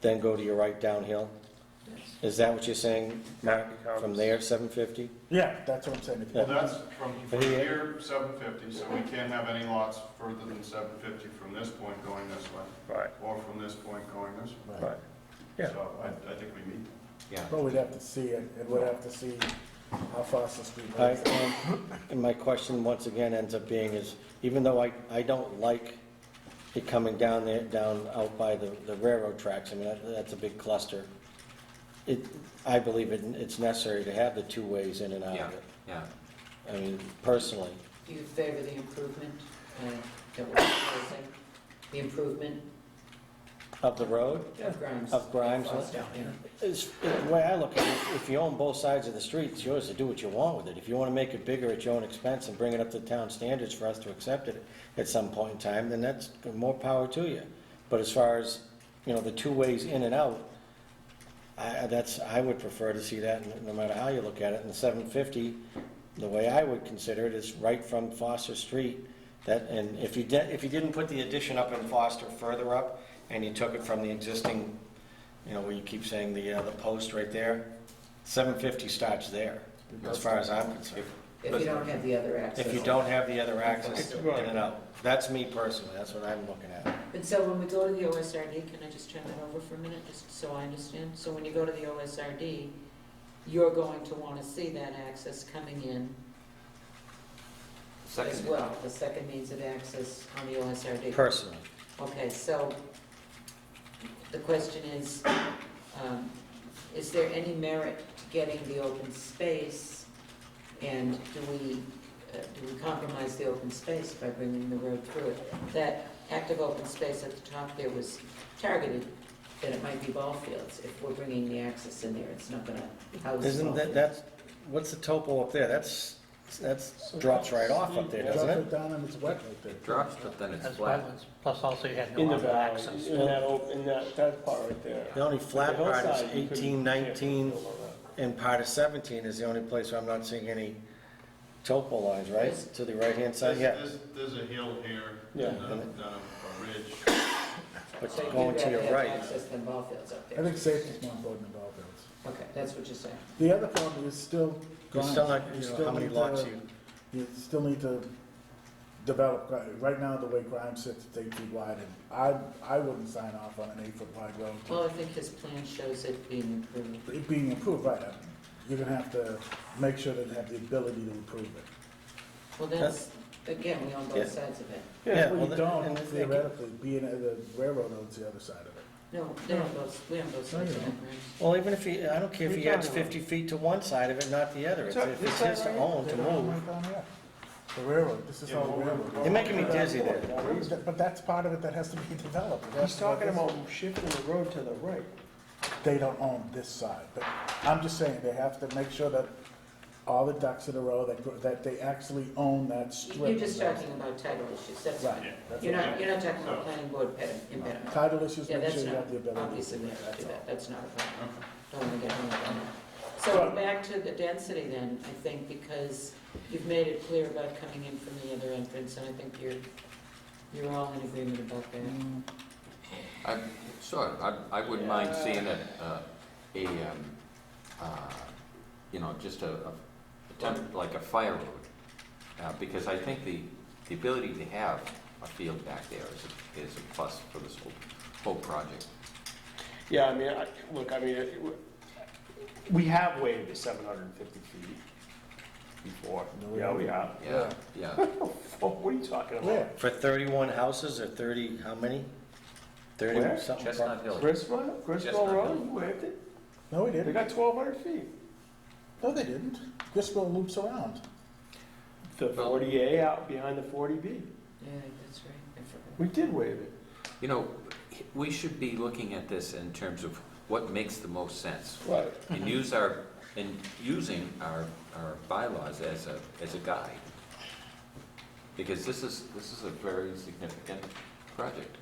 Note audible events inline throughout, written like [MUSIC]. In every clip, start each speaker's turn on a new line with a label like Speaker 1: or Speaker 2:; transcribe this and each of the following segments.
Speaker 1: then go to your right downhill? Is that what you're saying, Mark, from there, 750?
Speaker 2: Yeah, that's what I'm saying. If you
Speaker 3: Well,
Speaker 2: go-
Speaker 3: that's from, from here, seven fifty, so we can't have any lots further than seven fifty from this point going this way,
Speaker 4: Right,
Speaker 3: or from this point going this way.
Speaker 4: right. Yeah.
Speaker 3: So I, I think we meet.
Speaker 1: Yeah.
Speaker 2: But we'd have to see it, and we'd have to see how fast the speed
Speaker 1: I,
Speaker 2: goes.
Speaker 1: um, and my question once again ends up being is, even though I, I don't like it coming down there, down out by the, the railroad tracks, I mean, that, that's a big cluster. It, I believe it, it's necessary to have the two ways in and out
Speaker 5: Yeah,
Speaker 1: of it.
Speaker 5: yeah.
Speaker 1: I mean, personally,
Speaker 6: Do you favor the improvement uh, that we're proposing? The improvement
Speaker 1: of the road,
Speaker 6: of Grimes?
Speaker 1: Of Grimes, huh?
Speaker 6: Foster, yeah.
Speaker 1: is, the way I look at it, if you own both sides of the street, it's yours to do what you want with it. If you wanna make it bigger at your own expense and bring it up to town standards for us to accept it at some point in time, then that's more power to you. But as far as, you know, the two ways in and out, I, I- that's, I would prefer to see that, no- no matter how you look at it. And the seven fifty, the way I would consider it is right from Foster Street. That, and if you did, if you didn't put the addition up in Foster further up, and you took it from the existing, you know, where you keep saying the, uh, the post right there, seven fifty starts there, as far as I'm concerned.
Speaker 6: If you don't have the other access.
Speaker 1: If you don't have the other access in and out. That's me personally, that's what I'm looking at.
Speaker 6: And so when we go to the OSRD, can I just turn that over for a minute, just so I understand? So when you go to the OSRD, you're going to want to see that access coming in as
Speaker 5: Second,
Speaker 6: well, the second means of access on the OSRD.
Speaker 1: Personally,
Speaker 6: Okay, so the question is, um, is there any merit to getting the open space? And do we, uh, do we compromise the open space by bringing the road through it? That active open space at the top there was targeted, that it might be ball fields. If we're bringing the access in there, it's not gonna house.
Speaker 1: isn't
Speaker 6: ball
Speaker 1: that,
Speaker 6: fields.
Speaker 1: that's, what's the topo up there? That's, that's, drops right off up there, doesn't
Speaker 2: Drop
Speaker 1: it?
Speaker 2: it down and it's wet right there.
Speaker 5: it drops, but then it's
Speaker 7: As
Speaker 5: flat.
Speaker 7: wetlands, plus also you had
Speaker 8: In
Speaker 7: no
Speaker 8: the
Speaker 7: other
Speaker 8: valley,
Speaker 7: access.
Speaker 8: in that, op- in that, that part right there.
Speaker 1: The only flat part is
Speaker 8: Hillside, you couldn't-
Speaker 1: eighteen, nineteen,
Speaker 8: can't build on that.
Speaker 1: and part of seventeen is the only place where I'm not seeing any topo lines, right? To the right-hand side, yeah,
Speaker 3: There's, there's a hill here,
Speaker 8: Yeah.
Speaker 3: and a, and a ridge.
Speaker 1: but
Speaker 6: So you'd
Speaker 1: going to
Speaker 6: rather
Speaker 1: your
Speaker 6: have
Speaker 1: right.
Speaker 6: Access than ball fields up
Speaker 2: I
Speaker 6: there.
Speaker 2: think safety's more important than all those.
Speaker 6: Okay, that's what you're saying.
Speaker 2: The other problem is still
Speaker 1: You're
Speaker 2: Grimes.
Speaker 1: still not,
Speaker 2: You
Speaker 1: you know,
Speaker 2: still
Speaker 1: how many
Speaker 2: need
Speaker 1: lots
Speaker 2: to-
Speaker 1: you,
Speaker 2: You still need to develop, Gri- right now, the way Grimes sits, it's eight feet wide, and I, I wouldn't sign off on an eight-foot wide road. to-
Speaker 6: Well, I think his plan shows it being improved.
Speaker 2: It being improved, right, I- you're gonna have to make sure that they have the ability to improve it.
Speaker 6: Well, that's, again, we own
Speaker 1: Yeah.
Speaker 6: both sides of it.
Speaker 1: Yeah,
Speaker 2: Yeah, well,
Speaker 1: well,
Speaker 2: you
Speaker 1: the-
Speaker 2: don't
Speaker 1: and I think-
Speaker 2: theoretically, being at the railroad owns the other side of it.
Speaker 6: No, they own both, we own both
Speaker 2: No, you
Speaker 6: sides of it.
Speaker 2: don't.
Speaker 6: right?
Speaker 1: well, even if he, I don't care if he
Speaker 8: You're
Speaker 1: adds
Speaker 8: talking about-
Speaker 1: fifty feet to one side of it, not the other, if
Speaker 8: It's-
Speaker 1: if
Speaker 8: this
Speaker 1: it's
Speaker 8: side
Speaker 1: his to
Speaker 8: right
Speaker 1: own
Speaker 2: They
Speaker 1: to
Speaker 2: don't own
Speaker 1: move.
Speaker 2: right down here. The railroad, this is
Speaker 3: Yeah,
Speaker 2: all
Speaker 3: but we're-
Speaker 2: railroad.
Speaker 1: You're making me dizzy there.
Speaker 2: But that's part of it that has to be [LAUGHS] developed. It has
Speaker 8: He's
Speaker 2: to go
Speaker 8: talking
Speaker 2: this way.
Speaker 8: about shifting the road to the right.
Speaker 2: they don't own this side, but I'm just saying, they have to make sure that all the ducks in a row, that, that they actually own that strip.
Speaker 6: You're just talking about title issues, that's
Speaker 2: Right.
Speaker 6: fine.
Speaker 2: that's
Speaker 6: You're
Speaker 2: what-
Speaker 6: not, you're not talking about planning board pedi- impediment.
Speaker 2: Title issues,
Speaker 6: Yeah,
Speaker 2: make sure
Speaker 6: that's
Speaker 2: you
Speaker 6: not,
Speaker 2: have the ability to
Speaker 6: obviously,
Speaker 2: do
Speaker 6: we
Speaker 2: that,
Speaker 6: have to do
Speaker 2: that's all.
Speaker 6: that, that's not a problem. Don't want to get hung up on that. So
Speaker 2: Right.
Speaker 6: back to the density then, I think, because you've made it clear about coming in from the other entrance, and I think you're, you're all in agreement about that.
Speaker 2: Mm.
Speaker 5: I, sure, I, I wouldn't mind seeing a, uh, a, um, uh, you know, just a, a, attempt- like a fire road. Uh, because I think the, the ability to have a field back there is, a- is a plus for this whole, whole project.
Speaker 8: Yeah, I mean, I, look, I mean, it- we have waived the seven hundred and fifty feet before.
Speaker 2: No, we
Speaker 8: Yeah, we
Speaker 2: haven't.
Speaker 8: have.
Speaker 5: Yeah, yeah.
Speaker 8: Oh, What are you talking about?
Speaker 2: Where?
Speaker 1: For thirty-one houses or thirty, how many? Thirty
Speaker 8: Where?
Speaker 1: something.
Speaker 5: Chestnut Hill.
Speaker 8: Griswold, Griswold
Speaker 5: Chestnut
Speaker 8: Road,
Speaker 5: Hill.
Speaker 8: you waived it?
Speaker 2: No, we
Speaker 8: They
Speaker 2: didn't,
Speaker 8: got twelve hundred feet.
Speaker 2: no, they didn't, Griswold loops around.
Speaker 8: The forty A out behind the forty B.
Speaker 6: Yeah, that's right, I forgot.
Speaker 8: We did waive it.
Speaker 5: You know, we should be looking at this in terms of what makes the most sense.
Speaker 8: Right.
Speaker 5: and use our, and using our, our bylaws as a, as a guide. Because this is, this is a very significant project.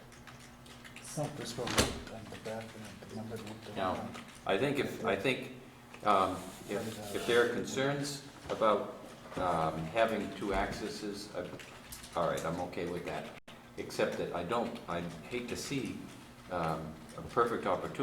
Speaker 2: It's not Griswold loop on the back, and the numbered loop.
Speaker 5: No. I think if, I think, um, if, if there are concerns about, um, having two accesses, I- all right, I'm okay with that. Except that I don't, I hate to see, um, a perfect opportunity